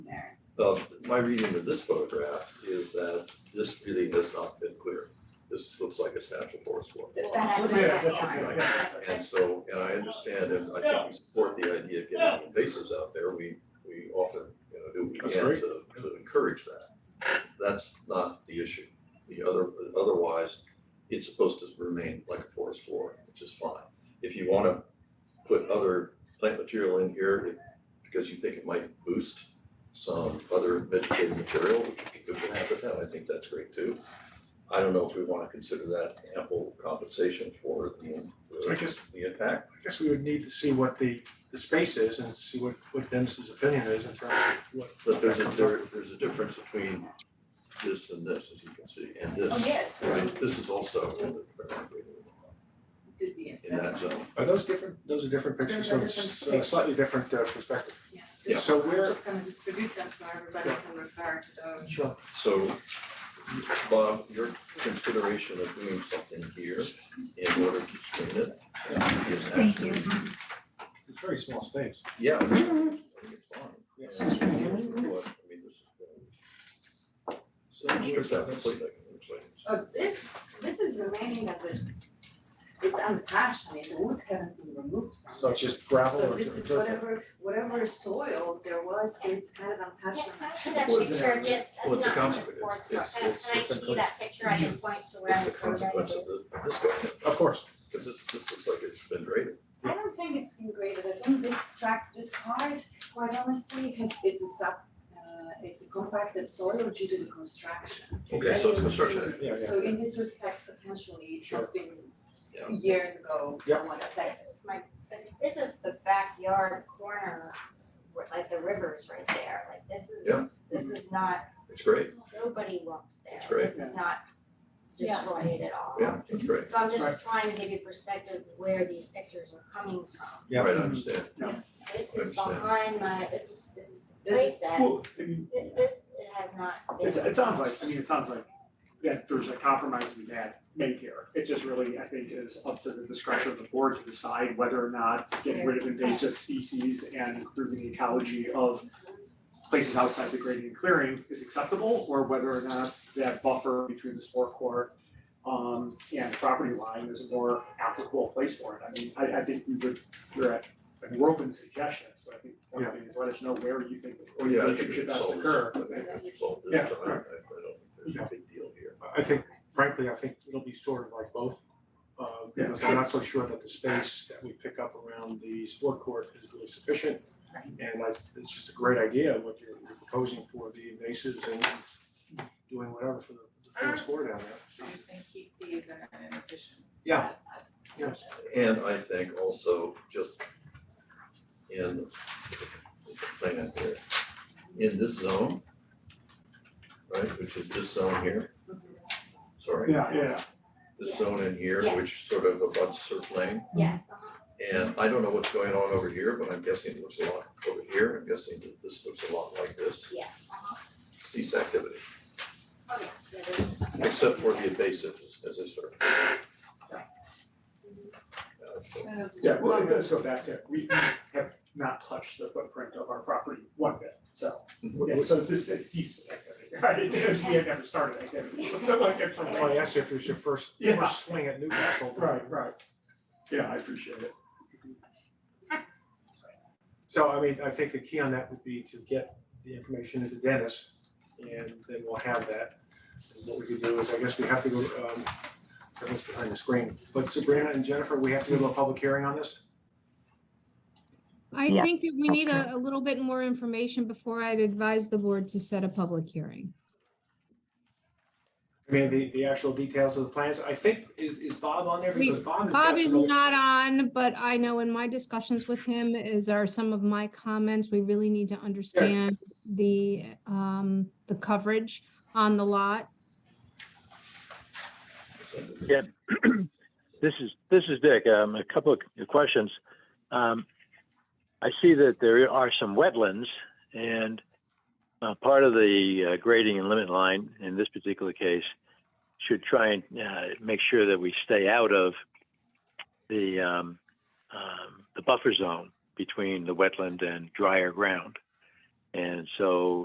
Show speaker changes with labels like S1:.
S1: the, my reading of this photograph is that this really has not been clear. This looks like it's natural forest water.
S2: That-
S3: That's-
S2: that's-
S3: that's-
S2: yeah.
S1: And so, and I understand, and I think we support the idea of getting invasives out there, we, we often, you know, do what we
S4: That's
S1: can
S4: great.
S1: to, to encourage that. That's not the issue, the other, otherwise, it's supposed to remain like a forest floor, which is fine. If you wanna put other plant material in here, it- because you think it might boost some other vegetative material, which would be good for habitat, I think that's great too. I don't know if we wanna consider that ample compensation for the,
S4: I guess,
S1: the impact.
S4: I guess we would need to see what the, the space is and see what, what Dennis's opinion is in terms of what.
S1: But there's a, there, there's a difference between this and this, as you can see, and
S2: Oh,
S1: this,
S2: yes,
S1: right? This is also in the,
S2: Disney, yes,
S1: in
S2: that's fine,
S1: that zone.
S4: Are those different, those are different
S3: Those
S4: pictures, so
S3: are
S4: it's
S3: different
S4: so slightly different uh, perspective.
S2: yes.
S1: Yeah.
S4: So
S2: We're
S4: where,
S2: just gonna distribute them so everybody
S4: Sure.
S2: can refer to those.
S4: sure,
S1: So, Bob, your consideration of doing something here in order to screen it uh, is
S5: Thank you.
S1: actually,
S4: it's very small space.
S1: yeah. I think it's fine.
S4: Yes.
S1: And here's what- I mean, this is,
S4: So
S1: uh,
S4: where's
S1: strip that
S4: that?
S1: completely, it looks like it's-
S2: Uh, this, this is remaining as a, it's untouched, I mean, the woods haven't been removed from it.
S4: So it's just gravel
S2: So
S4: or
S2: this is
S4: dirt?
S2: whatever, whatever soil there was, it's kind of untouched and untouched.
S5: That
S1: Well, it's
S5: picture
S1: a-
S5: just,
S1: well, it's
S5: that's
S1: a
S5: not
S1: consequence.
S5: just sports,
S1: It's-
S5: but when
S1: it's
S5: I
S1: just a
S5: see that picture, I can point to where I
S1: It's
S5: was
S1: the consequence of this, this guy,
S4: Of course,
S1: because this, this looks like it's been graded.
S2: I don't think it's been graded, I think this tract, this part, quite honestly, has, it's a sub, uh, it's a compacted soil due to the construction.
S1: Okay, so it's construction.
S4: yeah, yeah.
S2: So in this respect, potentially, it has been
S1: Yeah.
S2: years ago,
S4: Yeah.
S2: somewhat
S5: This
S2: affected.
S5: is my, but this is the backyard corner, where like the river's right there, like this
S1: Yeah.
S5: is, this is not,
S1: It's great,
S5: nobody walks there,
S1: That's right.
S5: this is not
S2: Yeah.
S5: destroyed at all.
S1: yeah, it's great,
S5: So I'm
S4: Right.
S5: just trying to give you perspective where these pictures are coming from.
S4: Yeah.
S1: right, I understand.
S5: This is
S1: Understand.
S5: behind my, this is, this is the
S2: This
S5: place
S2: is-
S5: that,
S6: Well, I mean,
S5: thi- this has not been.
S6: it's, it sounds like, I mean, it sounds like that there's a compromise we had made here. It just really, I think, is up to the discretion of the board to decide whether or not getting rid of invasive species and improving the ecology of places outside the grading and clearing is acceptable, or whether or not that buffer between the sport court um, and property line is a more applicable place for it. I mean, I, I think we would, we're at, I mean, we're open to suggestions, but I think one thing is let us know where you think the
S1: Well, yeah, I think we
S6: relationship best
S1: solved
S6: occur.
S1: this, I think we should solve
S4: Yeah.
S1: this time, I I don't think there's a big deal here.
S4: I think frankly, I think it'll be sort of like both. Uh, because I'm not so sure that the space that we pick up around the sport court is really sufficient. And I, it's just a great idea what you're you're proposing for the invasives and doing whatever for the the forest floor down there.
S3: So you're saying keep these and in addition.
S4: Yeah.
S3: add- add-
S4: Yeah.
S1: And I think also just in this plan here, in this zone, right, which is this zone here, sorry,
S6: Yeah, yeah.
S1: this zone in here,
S5: Yes.
S1: which sort of abuts Surf Lane.
S5: Yes, uh-huh.
S1: And I don't know what's going on over here, but I'm guessing it looks a lot over here, I'm guessing that this looks a lot like this,
S5: yeah, uh-huh,
S1: cease activity,
S5: oh, yes, yeah, there's.
S1: except for the invasive, as I started.
S2: Uh,
S6: Yeah, well, let's go back to, we have not touched the footprint of our property one bit, so, yeah, so this is cease activity, right? Because we have never started activity. Like, it's from
S4: That's why I
S6: last-
S4: asked you if it's your first,
S6: Yeah.
S4: first swing at Newcastle.
S6: Right, right. Mm-hmm. Yeah, I appreciate it.
S4: So I mean, I think the key on that would be to get the information into Dennis and then we'll have that. And what we could do is, I guess we have to go, um, Kevin's behind the screen, but Sabrina and Jennifer, we have to go to a public hearing on this?
S7: I
S8: Yeah.
S7: think that we need a, a little bit more information before I'd advise the board to set a public hearing.
S4: I mean, the, the actual details of the plans, I think, is, is Bob on there? Because Bob has got
S7: Bob is
S4: some-
S7: not on, but I know in my discussions with him is are some of my comments. We really need to understand the, um, the coverage on the lot.
S8: Yeah.
S9: This is this is Dick. Um, a couple of questions. Um, I see that there are some wetlands, and uh, part of the uh, grading and limit line in this particular case should try and uh, make sure that we stay out of the um, um, the buffer zone between the wetland and drier ground. And so